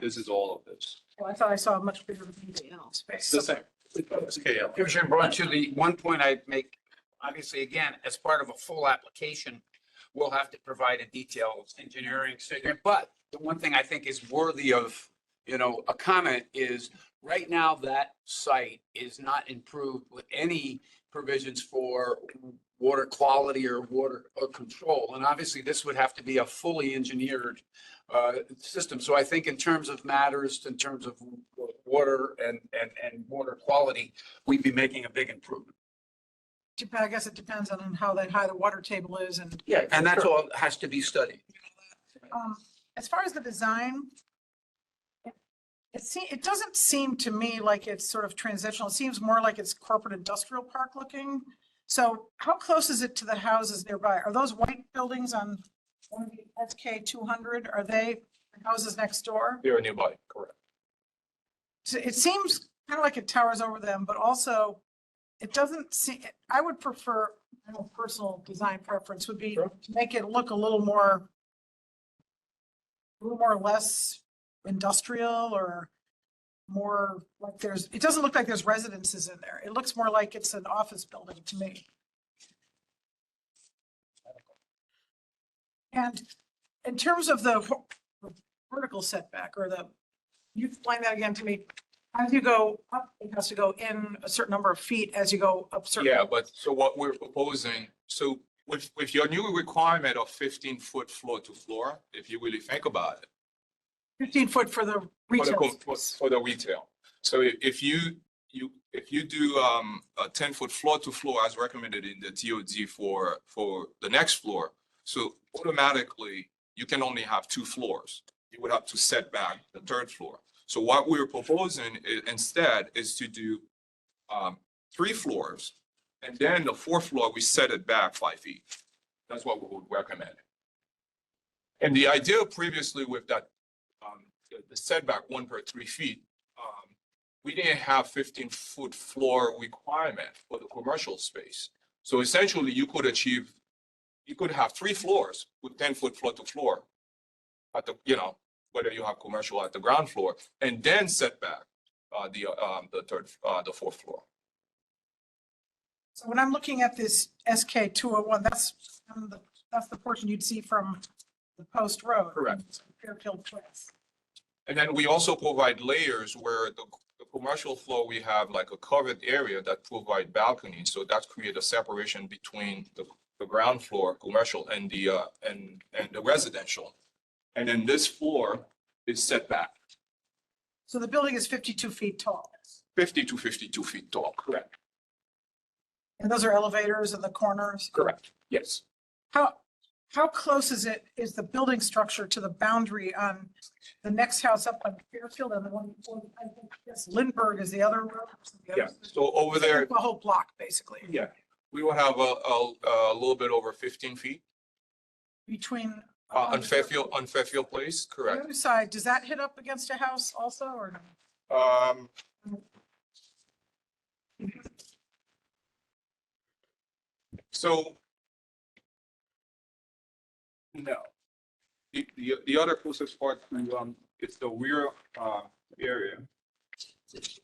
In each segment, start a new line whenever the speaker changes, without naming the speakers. This is all of this.
Well, I thought I saw a much bigger detail
It's
space.
the same. It's KL.
Commissioner Braun, to the one point I make, obviously, again, as part of a full application, we'll have to provide a detailed engineering statement. But the one thing I think is worthy of, you know, a comment is, right now, that site is not improved with any provisions for water quality or water or control. And obviously, this would have to be a fully engineered uh, system. So I think in terms of matters, in terms of water and, and, and water quality, we'd be making a big improvement.
Dep- I guess it depends on how that, high the water table is and,
Yeah. And that's all has to be studied.
um, as far as the design, it se, it doesn't seem to me like it's sort of transitional. It seems more like it's corporate industrial park looking. So how close is it to the houses nearby? Are those white buildings on one of the SK two hundred? Are they houses next door?
They are nearby, correct.
So it seems kind of like it towers over them, but also it doesn't seem, I would prefer, I know personal design preference would be to
Sure.
make it look a little more, a little more or less industrial or more like there's, it doesn't look like there's residences in there. It looks more like it's an office building to me. And in terms of the ho- vertical setback or the you explain that again to me. As you go up, it has to go in a certain number of feet as you go up certain.
Yeah, but so what we're proposing, so with, with your new requirement of fifteen foot floor to floor, if you really think about it.
Fifteen foot for the
for the
retail.
co- For for the retail. So i- if you, you, if you do, um, a ten foot floor to floor as recommended in the TOD for, for the next floor. So automatically, you can only have two floors. You would have to set back the third floor. So what we're proposing i- instead is to do, um, three floors. And then the fourth floor, we set it back five feet. That's what we would recommend. And the idea previously with that um, the- the setback one per three feet, um, we didn't have fifteen foot floor requirement for the commercial space. So essentially you could achieve, you could have three floors with ten foot floor to floor. At the, you know, whether you have commercial at the ground floor and then setback, uh, the, uh, um, the third, uh, the fourth floor.
So when I'm looking at this SK two oh one, that's, um, the- that's the portion you'd see from the post road.
Correct.
Fairfield Place.
And then we also provide layers where the, the commercial floor, we have like a covered area that provide balconies. So that create a separation between the, the ground floor, commercial and the, uh, and, and the residential. And then this floor is set back
So the building is fifty-two feet tall.
fifty to fifty-two feet tall. Correct.
And those are elevators in the corners.
Correct. Yes.
How, how close is it, is the building structure to the boundary on the next house up on Fairfield and the one, before? I think, yes, Lindbergh is the other. road, so the other-
Yeah. So over
It's
there,
like The whole block, basically,
yeah, we will have a, a, a little bit over fifteen feet,
between.
uh, on Fairfield, on Fairfield Place,
The
correct?
other side, does that hit up against a house also, or? no?
Um. So. No. The, the, the other closest part to, um, is the rear, uh, area.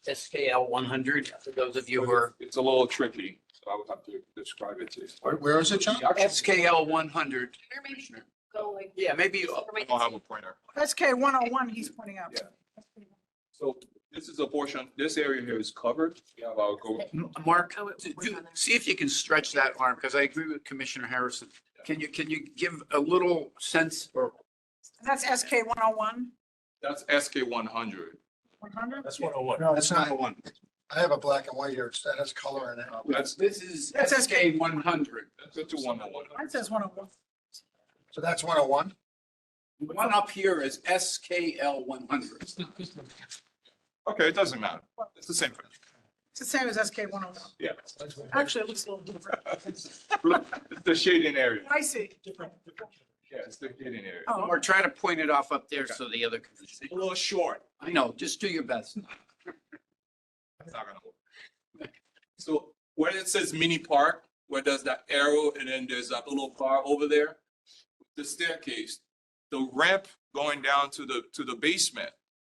SKL one hundred, for those of you
But
who are.
it's- It's a little tricky, so I would have to describe it to you.
where is it, John?
The actual-
SKL one hundred.
Or maybe go like.
Yeah, maybe uh, you-
I don't have a pointer.
SK one oh one, he's pointing out.
So this is a portion, this area here is covered. We have our go-
Mark,
Oh, it-
do-
we're
do-
on there.
see if you can stretch that arm, because I agree with Commissioner Harrison. Can you, can you give a little sense or
That's SK one oh one,
that's SK one hundred.
one hundred?
That's one oh one. No, that's not one. I have a black and white here. It's- That has color in it.
That's,
This is
That's
SK one hundred.
that's a two one oh one.
Mine says one oh one.
So that's one oh one?
One up here is SKL one hundred.
Okay, it doesn't matter. It's the same thing.
It's the same as SK one oh one.
Yeah.
Actually, it looks a little different.
The shading area.
I see.
Yeah, it's the shading area.
Oh,
Or try to point it off up there so the other can see.
A little short.
I know, just do your best.
That's not gonna work. So where it says mini park, where there's that arrow and then there's that little bar over there, the staircase, the ramp going down to the, to the basement